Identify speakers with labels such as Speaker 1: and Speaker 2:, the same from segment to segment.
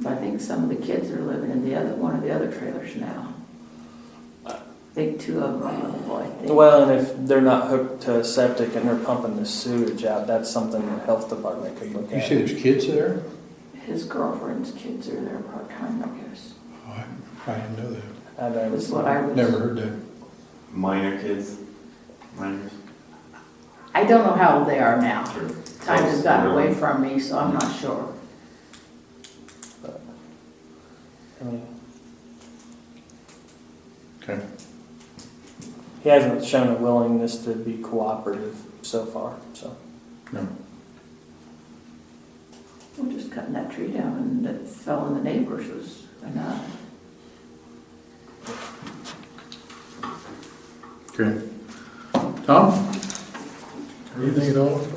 Speaker 1: think some of the kids are living in the other, one of the other trailers now.
Speaker 2: Uh,
Speaker 1: I think two of them are on the boy. I think.
Speaker 3: Well, and if they're not hooked to septic and they're pumping the sewage out, that's something the health department could look
Speaker 2: You say
Speaker 3: at.
Speaker 2: there's kids there?
Speaker 1: His girlfriend's kids are there part-time, I guess.
Speaker 2: Oh, I, I didn't know that.
Speaker 3: I
Speaker 1: That was
Speaker 3: don't,
Speaker 1: what I was.
Speaker 2: Never heard that.
Speaker 4: Minor kids, minors.
Speaker 1: I don't know how old they are now.
Speaker 4: Sure.
Speaker 1: Time has gotten away from me, so I'm
Speaker 2: Mm-hmm.
Speaker 1: not sure.
Speaker 3: I mean,
Speaker 2: Okay.
Speaker 3: he hasn't shown a willingness to be cooperative so far, so.
Speaker 2: No.
Speaker 1: We're just cutting that tree down and that fell in the neighbors was enough.
Speaker 2: Okay. Tom? Anything at all?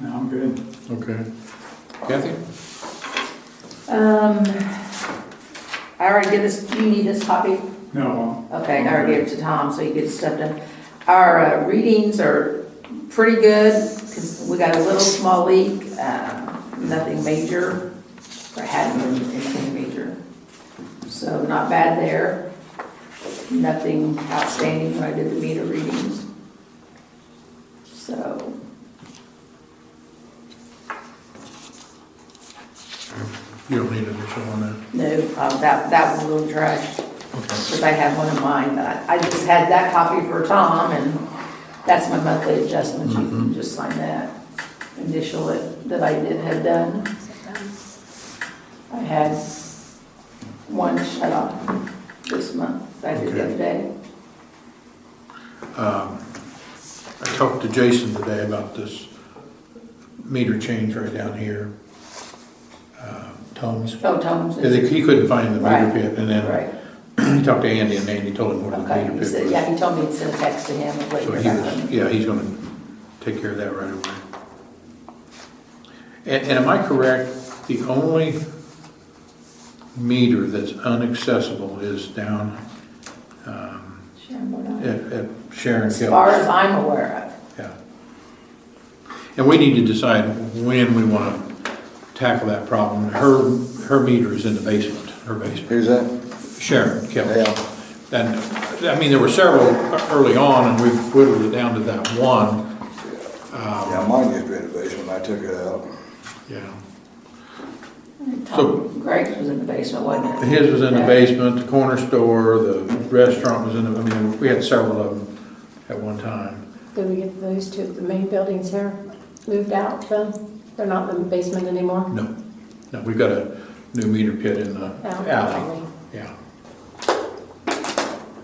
Speaker 5: No, I'm good.
Speaker 2: Okay. Kathy?
Speaker 1: Um, I already did this, do you need this copy?
Speaker 5: No,
Speaker 1: Okay, I already gave it to Tom, so you get stuff done. Our uh, readings are pretty good, 'cause we got a little small leak, uh, nothing major, or hadn't been anything major. So not bad there. Nothing outstanding when I did the meter readings. So.
Speaker 2: You don't need additional on that.
Speaker 1: No, um, that, that was a little trash, because I have one of mine, but I I just had that copy for Tom, and that's my monthly adjustment, you
Speaker 2: Mm-hmm.
Speaker 1: can just sign that, initial it, that I did, had done. I had one shut off this month, I did the other day.
Speaker 2: Um, I talked to Jason today about this meter change right down here. Uh, Tom's.
Speaker 1: Oh, Tom's,
Speaker 2: Yeah, they- He couldn't find the meter
Speaker 1: Right.
Speaker 2: pit and
Speaker 1: right,
Speaker 2: then he talked to Andy and Andy told him where the
Speaker 1: okay,
Speaker 2: meter
Speaker 1: he said,
Speaker 2: pit was.
Speaker 1: yeah, he told me to send a text to him, and wait
Speaker 2: So
Speaker 1: for
Speaker 2: he
Speaker 1: that.
Speaker 2: was, yeah, he's gonna take care of that right away. And, and am I correct, the only meter that's unaccessible is down, um,
Speaker 1: Sharon Bodine.
Speaker 2: at, at Sharon Hills?
Speaker 1: As far as I'm aware of.
Speaker 2: Yeah. And we need to decide when we wanna tackle that problem. Her, her meter is in the basement, her basement.
Speaker 6: Who's that?
Speaker 2: Sharon Kelly.
Speaker 6: Yeah.
Speaker 2: And, I mean, there were several early on, and we've whittled it down to that one.
Speaker 6: Yeah, mine just renovation, I took it out.
Speaker 2: Yeah. So-
Speaker 1: Tom Greg's was in the basement, wasn't it?
Speaker 2: His was in the
Speaker 1: Yeah.
Speaker 2: basement, the corner store, the restaurant was in the, I mean, we had several of them at one time.
Speaker 7: Did we get those two, the main buildings here moved out though? They're not in the basement anymore?
Speaker 2: No, no, we've got a new meter pit in the
Speaker 1: Oh,
Speaker 7: Out.
Speaker 2: alley, yeah.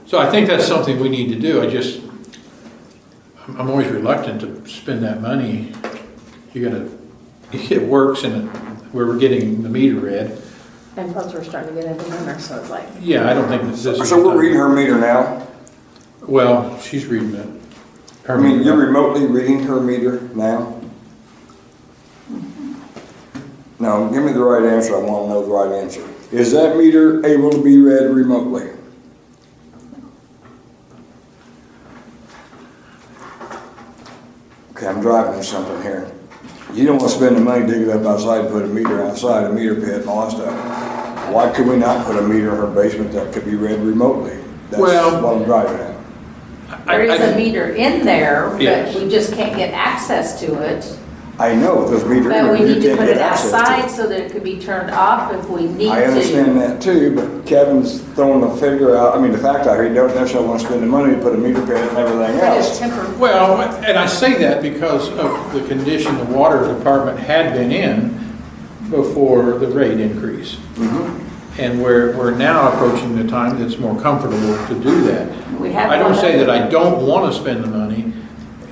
Speaker 2: So I think that's something we need to do, I just, I'm, I'm always reluctant to spend that money. You gotta, it works and it- where we're getting the meter read,
Speaker 7: And plus, we're starting to get into winter, so it's like,
Speaker 2: yeah, I don't think this is.
Speaker 6: So we're reading her meter now?
Speaker 2: Well, she's reading it.
Speaker 6: I mean, you're remotely reading her meter now? No, give me the right answer, I wanna know the right answer. Is that meter able to be read remotely? Okay, I'm driving something here. You don't wanna spend the money digging up outside, and put a meter outside, a meter pit and all that stuff. Why could we not put a meter in her basement that could be read remotely? That's
Speaker 2: Well-
Speaker 6: what I'm driving at.
Speaker 2: I-
Speaker 1: There is
Speaker 2: I-
Speaker 1: a meter in there, but
Speaker 2: Yes.
Speaker 1: we just can't get access to it.
Speaker 6: I know, those meters.
Speaker 1: But we need to put it outside so that it could be turned off if we need to.
Speaker 6: I understand that too, but Kevin's throwing the figure out, I mean, the fact out here, you don't necessarily want to spend the money to put a meter pit and everything
Speaker 1: But it's
Speaker 6: else.
Speaker 1: temporary.
Speaker 2: Well, and I say that because of the condition the water department had been in before the rate increase.
Speaker 1: Mm-hmm.
Speaker 2: And we're, we're now approaching the time that's more comfortable to do that.
Speaker 1: We have
Speaker 2: I don't
Speaker 1: one
Speaker 2: say
Speaker 1: other-
Speaker 2: that I don't want to spend the money.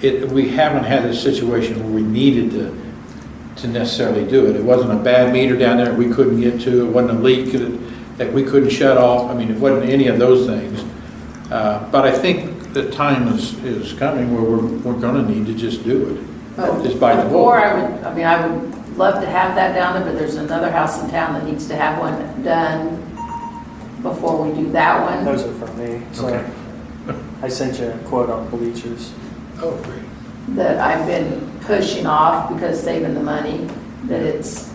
Speaker 2: It, we haven't had a situation where we needed to, to necessarily do it. It wasn't a bad meter down there we couldn't get to, it wasn't a leak that, that we couldn't shut off. I mean, it wasn't any of those things. Uh, But I think the time is, is coming where we're, we're gonna need to just do it, just by the
Speaker 1: Oh,
Speaker 2: book.
Speaker 1: Before, I would, I mean, I would love to have that down there, but there's another house in town that needs to have one done before we do that one.
Speaker 3: Those are from me, so.
Speaker 2: Okay.
Speaker 3: I sent you a quote on bleachers.
Speaker 2: Oh, great.
Speaker 1: That I've been pushing off because saving the money, that it's